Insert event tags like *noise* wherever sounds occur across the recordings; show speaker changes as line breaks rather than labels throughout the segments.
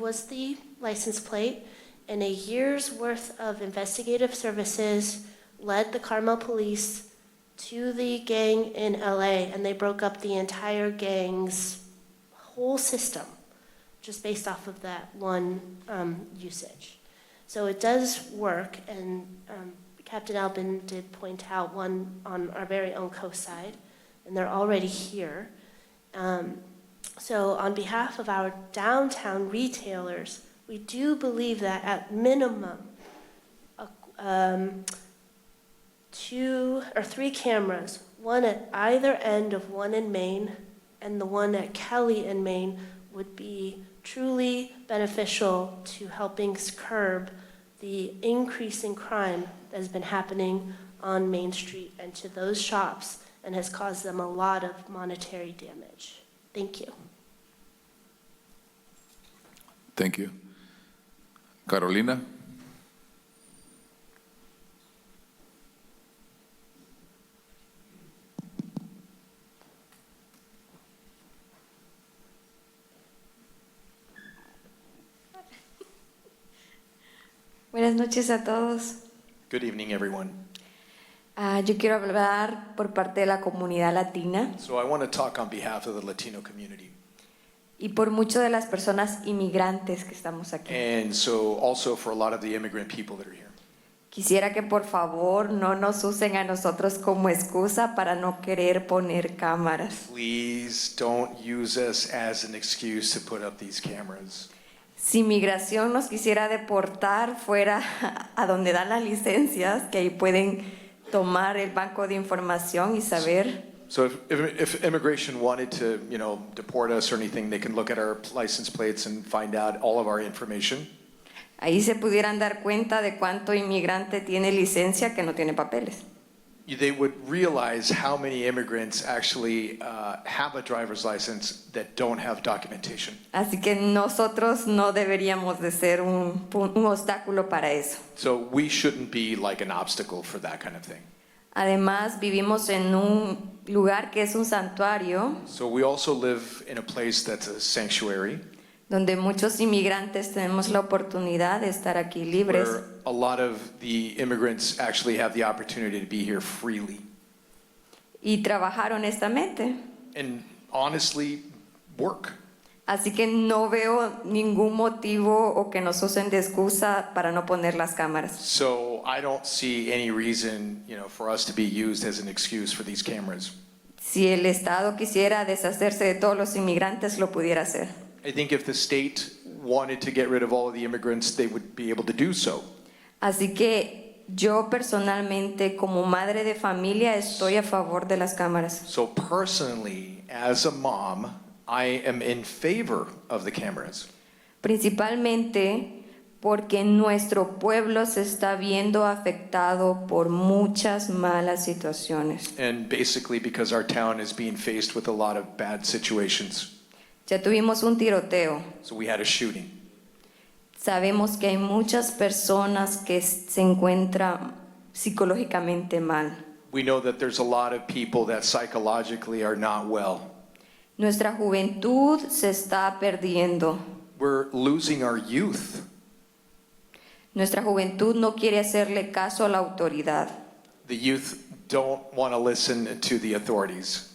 was the license plate, and a year's worth of investigative services led the Carmel police to the gang in LA, and they broke up the entire gang's whole system just based off of that one um, usage. So it does work, and um, Captain Albin did point out one on our very own coast side, and they're already here. Um, so, on behalf of our downtown retailers, we do believe that at minimum, a- um, two or three cameras, one at either end of one in Maine and the one at Kelly in Maine, would be truly beneficial to helping s- curb the increase in crime that has been happening on Main Street and to those shops and has caused them a lot of monetary damage. Thank you.
Thank you. Carolina?
Buenas noches a todos.
Good evening, everyone.
Ah, yo quiero hablar por parte de la comunidad latina
So I want to talk on behalf of the Latino community
y por muchas de las personas inmigrantes que estamos aquí.
and so also for a lot of the immigrant people that are here.
Quisiera que por favor no nos usen a nosotros como excusa para no querer poner cámaras.
Please don't use us as an excuse to put up these cameras.
Si migración nos quisiera deportar fuera *laughs* a donde dan las licencias, que ahí pueden tomar el banco de información y saber.
So if, if, if immigration wanted to, you know, deport us or anything, they can look at our license plates and find out all of our information.
Ahí se pudieran dar cuenta de cuánto inmigrante tiene licencia que no tiene papeles.
They would realize how many immigrants actually uh, have a driver's license that don't have documentation.
Así que nosotros no deberíamos de ser un, pu- un obstáculo para eso.
So we shouldn't be like an obstacle for that kind of thing.
Además, vivimos en un lugar que es un santuario,
So we also live in a place that's a sanctuary
donde muchos inmigrantes tenemos la oportunidad de estar aquí libres.
where a lot of the immigrants actually have the opportunity to be here freely
y trabajar honestamente.
and honestly work.
Así que no veo ningún motivo o que nos usen de excusa para no poner las cámaras.
So I don't see any reason, you know, for us to be used as an excuse for these cameras.
Si el Estado quisiera deshacerse de todos los inmigrantes, lo pudiera hacer.
I think if the state wanted to get rid of all of the immigrants, they would be able to do so.
Así que yo personalmente, como madre de familia, estoy a favor de las cámaras.
So personally, as a mom, I am in favor of the cameras.
Principalmente porque nuestro pueblo se está viendo afectado por muchas malas situaciones.
And basically because our town is being faced with a lot of bad situations.
Ya tuvimos un tiroteo.
So we had a shooting.
Sabemos que hay muchas personas que se encuentran psicológicamente mal.
We know that there's a lot of people that psychologically are not well.
Nuestra juventud se está perdiendo.
We're losing our youth.
Nuestra juventud no quiere hacerle caso a la autoridad.
The youth don't want to listen to the authorities.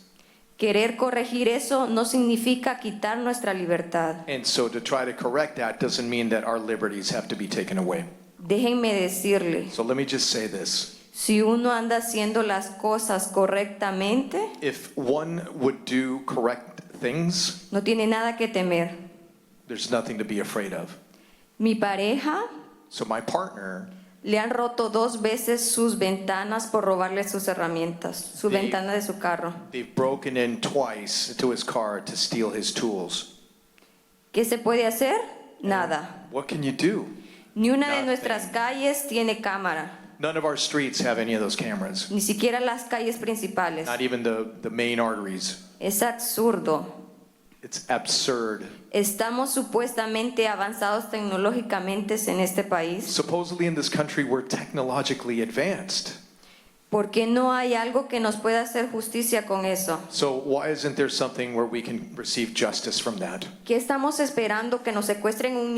Querer corregir eso no significa quitar nuestra libertad.
And so to try to correct that doesn't mean that our liberties have to be taken away.
Déjenme decirles,
So let me just say this.
si uno anda haciendo las cosas correctamente,
If one would do correct things,
no tiene nada que temer.
there's nothing to be afraid of.
Mi pareja
So my partner,
le han roto dos veces sus ventanas por robarle sus herramientas, su
Sí.
ventana de su carro.
they've broken in twice to his car to steal his tools.
¿Qué se puede hacer? Nada.
What can you do?
Ni una de
Nothing.
nuestras calles tiene cámara,
None of our streets have any of those cameras.
ni siquiera las calles principales.
Not even the, the main arteries.
Es absurdo.
It's absurd.
Estamos supuestamente avanzados tecnológicamente en este país.
Supposedly in this country, we're technologically advanced.
¿Por qué no hay algo que nos pueda hacer justicia con eso?
So why isn't there something where we can receive justice from that?
¿Qué estamos esperando que nos secuestren un